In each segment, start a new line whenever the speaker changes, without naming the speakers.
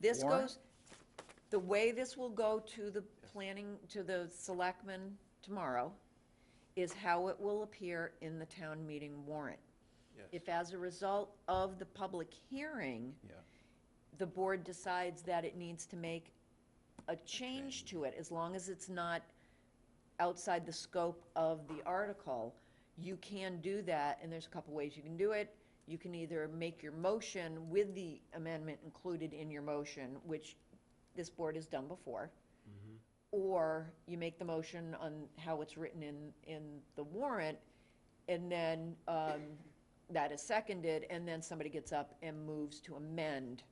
This
Warrant?
goes, the way this will go to the planning, to the selectmen tomorrow, is how it will appear in the town meeting warrant. If as a result of the public hearing,
Yeah.
the board decides that it needs to make a change to it, as long as it's not outside the scope of the article, you can do that, and there's a couple ways you can do it. You can either make your motion with the amendment included in your motion, which this board has done before,
Mm-hmm.
or you make the motion on how it's written in, in the warrant, and then um, that is seconded, and then somebody gets up and moves to amend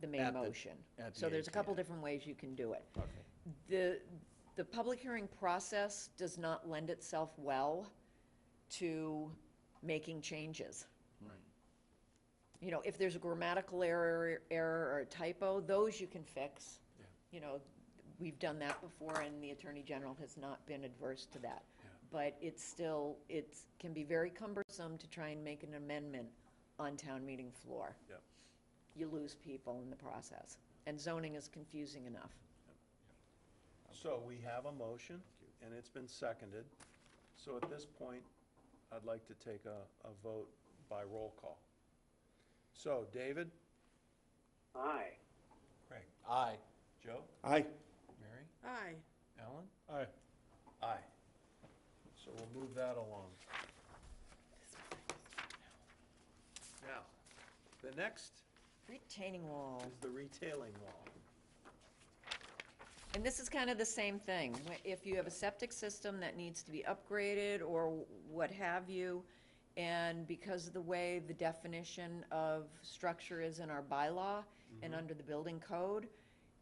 the main
At the-
motion.
at
So
the
there's a couple
AGM.
different ways you can do it.
Okay.
The, the public hearing process does not lend itself well to making changes. You know, if there's a grammatical error, error or a typo, those you can fix. You know, we've done that before and the Attorney General has not been adverse to that. But it's still, it can be very cumbersome to try and make an amendment on town meeting floor.
Yeah.
You lose people in the process. And zoning is confusing enough.
So we have a motion, and it's been seconded. So at this point, I'd like to take a, a vote by roll call. So, David?
Aye.
Craig.
Aye.
Joe?
Aye.
Mary?
Aye.
Alan? Aye. Aye. So we'll move that along. Now, the next
Retaining wall.
is the retailing wall.
And this is kind of the same thing. Wh- If you have a septic system that needs to be upgraded or what have you, and because of the way the definition of structure is in our bylaw and
Mm-hmm.
under the building code,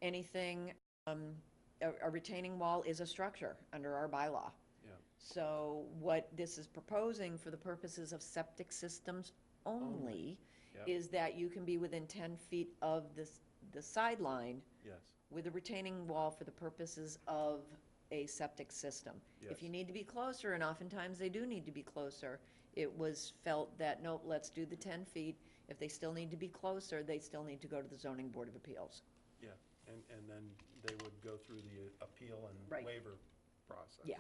anything, um, a a retaining wall is a structure under our bylaw.
Yeah.
So what this is proposing for the purposes of septic systems only
Yep.
is that you can be within 10 feet of the s- the sideline
Yes.
with a retaining wall for the purposes of a septic system. If you
Yes.
need to be closer, and oftentimes they do need to be closer, it was felt that, nope, let's do the ten feet. If they still need to be closer, they still need to go to the zoning board of appeals.
Yeah, and, and then they would go through the appeal
Right.
and waiver process.
Yeah.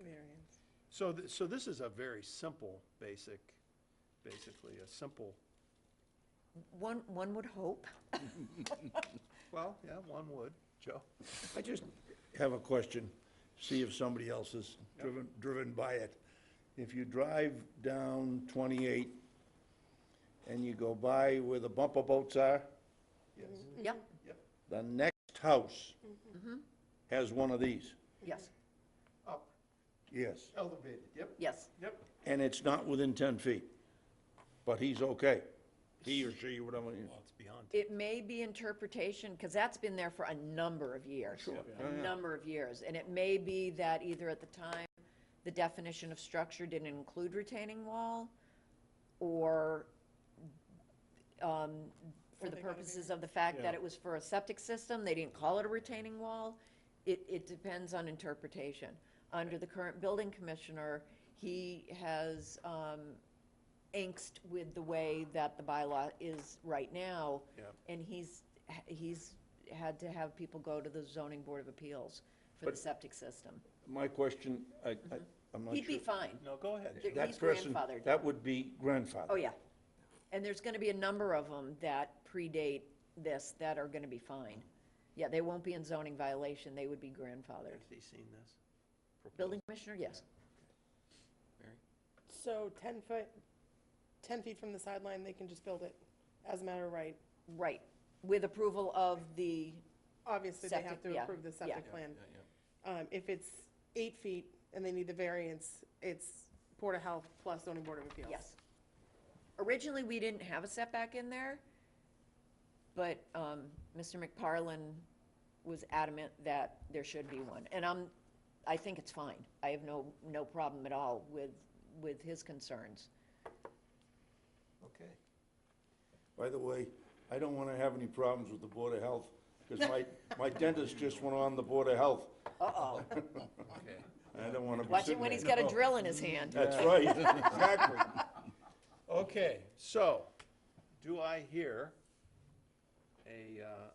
Variance.
So, th- so this is a very simple, basic, basically a simple,
One, one would hope.
well, yeah, one would, Joe.
I just have a question, see if somebody else is driven, driven by it. If you drive down 28 and you go by where the bumper boats are,
Yes,
Yep,
yep.
the next house
Mm-hmm.
has one of these.
yes,
Up,
Yes.
Oh, elevated, yep,
yes.
yep.
And it's not within 10 feet, but he's okay. He or she, whatever.
Well, it's beyond,
It may be interpretation, because that's been there for a number of years. A number of years, and it may be that either at the time, the definition of structure didn't include retaining wall, or, um, for the purposes of the fact that it was for a septic system, they didn't call it a retaining wall. It, it depends on interpretation. Under the current building commissioner, he has, um, angst with the way that the bylaw is right now.
Yep.
And he's, he's had to have people go to the zoning board of appeals for the septic system.
My question, I, I, I'm
Mm-hmm.
not sure.
He'd be fine.
no, go ahead.
There-
That
He's
person-
grandfathered.
That would be grandfathered.
Oh, yeah. And there's gonna be a number of them that predate this that are gonna be fine. Yeah, they won't be in zoning violation. They would be grandfathered.
Has he seen this? proposal?
Building commissioner, yes.
Mary?
So ten foot, ten feet from the sideline, they can just build it as a matter of right.
Right. With approval of the,
Obviously, they have
Septic,
to
yeah,
approve the
yeah.
septic
Yeah,
plan.
yeah, yeah.
Um, if it's eight feet and they need the variance, it's Board of Health plus zoning board of appeals.
yes. Originally, we didn't have a setback in there, but um, Mr. McParlin was adamant that there should be one. And I'm, I think it's fine. I have no, no problem at all with, with his concerns.
Okay.
By the way, I don't want to have any problems with the Board of Health, because my, my dentist just went on the Board of Health.
Uh-oh.
Okay.
I don't want to be
Watch
sitting
it when he's
there.
got a drill in his hand.
That's right, exactly.
Okay, so, do I hear a, uh,